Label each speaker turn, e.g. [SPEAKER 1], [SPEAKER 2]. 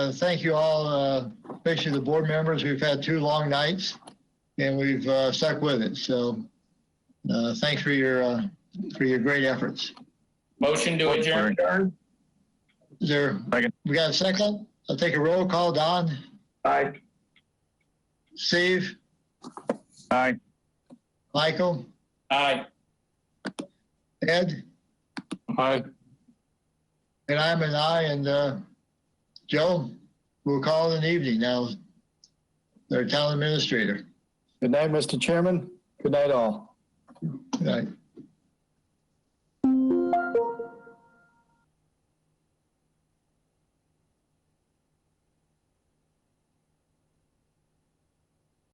[SPEAKER 1] Uh, Thank you all, uh, especially the board members. We've had two long nights and we've uh, stuck with it. So uh, thanks for your, uh, for your great efforts.
[SPEAKER 2] Motion to adjourn.
[SPEAKER 1] Is there,
[SPEAKER 3] Second.
[SPEAKER 1] we got a second? I'll take a roll call. Don,
[SPEAKER 2] Aye.
[SPEAKER 1] Steve,
[SPEAKER 3] Aye.
[SPEAKER 1] Michael,
[SPEAKER 2] Aye.
[SPEAKER 1] Ed,
[SPEAKER 3] Aye.
[SPEAKER 1] and I'm an I and uh, Joe, we'll call it an evening now. Our town administrator.
[SPEAKER 3] Good night, Mr. Chairman. Good night, all.
[SPEAKER 1] Right.